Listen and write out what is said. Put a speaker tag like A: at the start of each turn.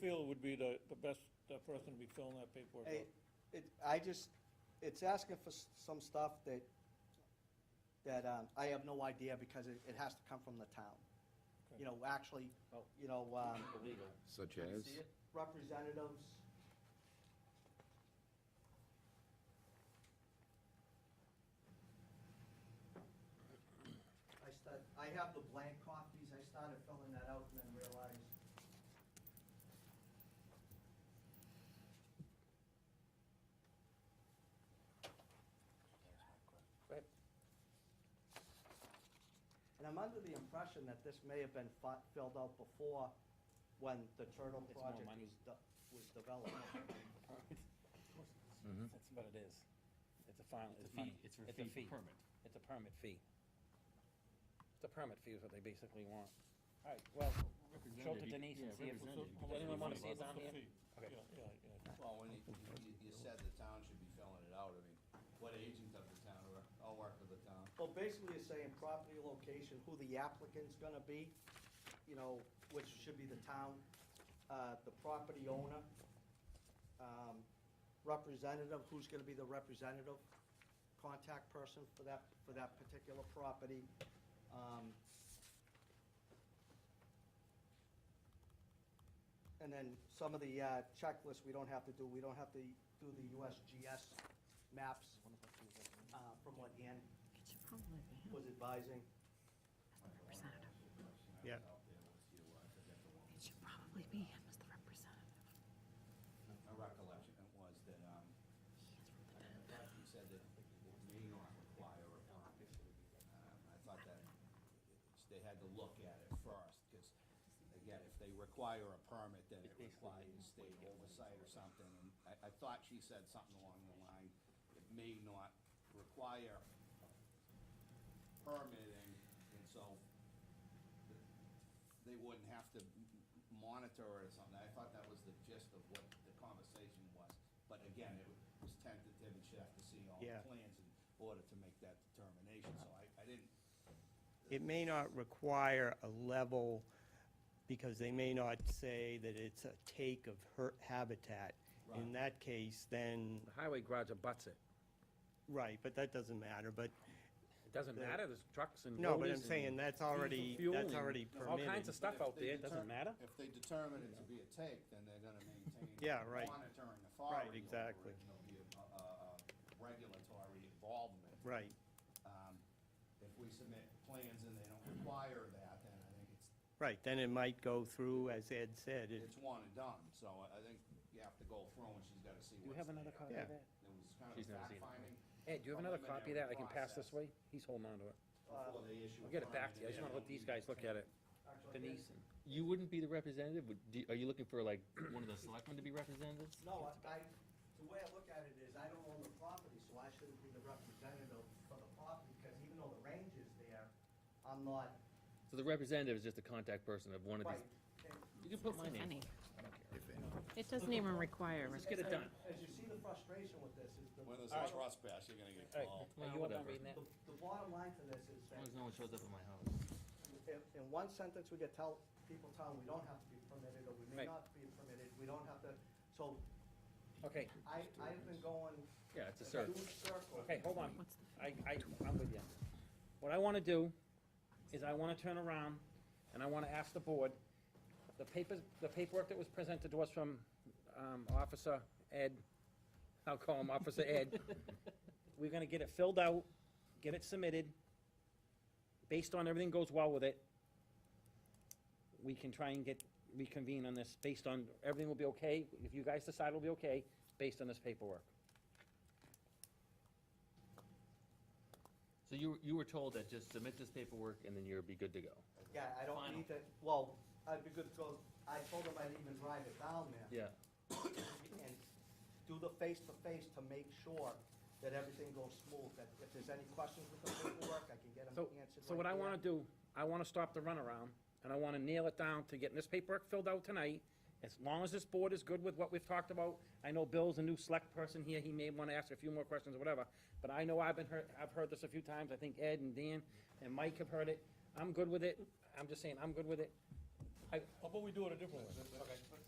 A: feel would be the, the best uh, person to be filling that paperwork out?
B: Hey, it, I just, it's asking for s- some stuff that, that, um, I have no idea because it, it has to come from the town. You know, actually, you know, um,
C: Illegal.
D: Such
C: Oh. Can you
D: as?
C: see it?
B: representatives. I start, I have the blank copies, I started filling that out and then realized. And I'm under the impression that this may have been fi- filled out before when the Turtle
C: It's more
B: project
C: money.
B: was, de- was developed.
C: That's what it is. It's a final,
E: It's
C: it's
E: a
C: money.
E: fee, it's a
C: It's a
E: fee
C: fee.
E: for permit.
C: It's a permit fee. It's a permit fee is what they basically want. All right, well, show it to
E: Representative,
C: Denise and see
E: yeah,
C: if,
A: So-
E: representative,
A: so
C: does anyone
A: what's
C: wanna
A: the-
C: see it down
A: what's the
C: here?
A: fee?
C: Okay.
A: Yeah, yeah, yeah.
F: Well, when you, you, you said the town should be filling it out, I mean, what agent of the town, or I'll work with the town.
B: Well, basically, it's saying property location, who the applicant's gonna be, you know, which should be the town, uh, the property owner, um, representative, who's gonna be the representative, contact person for that, for that particular property, um, and then some of the uh, checklists we don't have to do, we don't have to do the USGS maps, uh, from what Ann
G: Could you pull it down?
B: was advising.
G: Representative.
F: Yeah.
G: It should probably be him as the representative.
F: My recollection was that, um,
G: He is
F: I
G: representative.
F: thought you said that it may not require a permit. Um, I thought that they had to look at it first, because again, if they require a permit, then it requires state oversight or something. And I, I thought she said something along the line, it may not require permitting, and so they wouldn't have to m- m- monitor it or something. I thought that was the gist of what the conversation was. But again, it was tentative, and she'd have to see all the
H: Yeah.
F: plans in order to make that determination, so I, I didn't,
H: It may not require a level, because they may not say that it's a take of her habitat. In
F: Right.
H: that case, then,
C: The highway garage abuts it.
H: right, but that doesn't matter, but,
C: It doesn't
H: The-
C: matter, there's trucks and
H: no, but I'm
C: loaders
H: saying
C: and
H: that's already,
C: fuel
H: that's
C: and
H: already
C: All kinds
H: permitted.
C: of stuff
F: But if
C: out
F: they
C: there, it doesn't
F: deter-
C: matter.
F: if they determine it to be a take, then they're gonna maintain.
H: Yeah, right.
F: Monitoring authority. over it,
H: exactly.
F: and There'll be a, a, a regulatory involvement.
H: Right,
F: Um, If we submit plans and they don't require that, then I think it's,
H: right, then it might go through, as Ed said, it,
F: it's one and done, so I I think you have to go through and she's gotta see
C: Do you
F: what's
C: have another
F: there.
C: copy
H: Yeah.
C: of that?
F: It was kind of
C: She's never seen it.
F: fact-finding
C: Ed, do you have another copy of that I can pass this
F: Preliminary
C: way?
F: process.
C: He's holding on to it.
F: before they
C: Uh, I'll
F: issue. a
C: get it back
F: permit
C: to you, I just
F: and
C: wanna let these guys look at it. Denise and.
E: You wouldn't be the representative? Would, do- are you looking for like one of the selectmen to be representatives?
B: No, I, I, the way I look at it is, I don't own the property, so I shouldn't be the representative for the property, because even though the range is there, I'm not,
E: So the representative is just a contact person of one of
B: right.
E: these. You can put my
G: Doesn't
E: name.
G: any- It doesn't even require.
E: Let's get it done.
B: As you see the frustration with this, is the,
F: When there's
B: the,
F: a trespass, you're gonna get
C: All right, are
F: called.
C: you
E: Well,
C: up on
E: whatever.
C: reading that?
B: the bottom line to this is
E: As long
B: that,
E: as no one shows up at my house.
B: in, in one sentence, we get tell, people tell them we don't have to be permitted, or we may
C: Right.
B: not be permitted, we don't have to, so
C: Okay,
B: I, I've been going.
E: Yeah, it's a circle.
B: huge circle.
C: okay, hold on.
G: What's the?
C: I, I, I'm with you. What I wanna do is I wanna turn around and I wanna ask the board, the papers, the paperwork that was presented to us from, um, Officer Ed, I'll call him Officer Ed. We're gonna get it filled out, get it submitted. Based on everything goes well with it, we can try and get, reconvene on this, based on, everything will be okay, if you guys decide it'll be okay, based on this paperwork.
E: So you, you were told that just submit this paperwork and then you'll be good to go.
B: Yeah, I don't
E: Final.
B: need that, well, I'd be good to go, I told him I'd even drive it down there.
E: Yeah.
B: and do the face-to-face to make sure that everything goes smooth, that if there's any questions with the paperwork, I can get them
C: So,
B: answered right
C: so what I
B: there.
C: wanna do, I wanna stop the runaround, and I wanna nail it down to getting this paperwork filled out tonight. As long as this board is good with what we've talked about, I know Bill's a new select person here, he may wanna ask a few more questions or whatever, but I know I've been heard, I've heard this a few times, I think Ed and Dan and Mike have heard it, I'm good with it, I'm just saying, I'm good with it. I,
A: How about we do it a different way?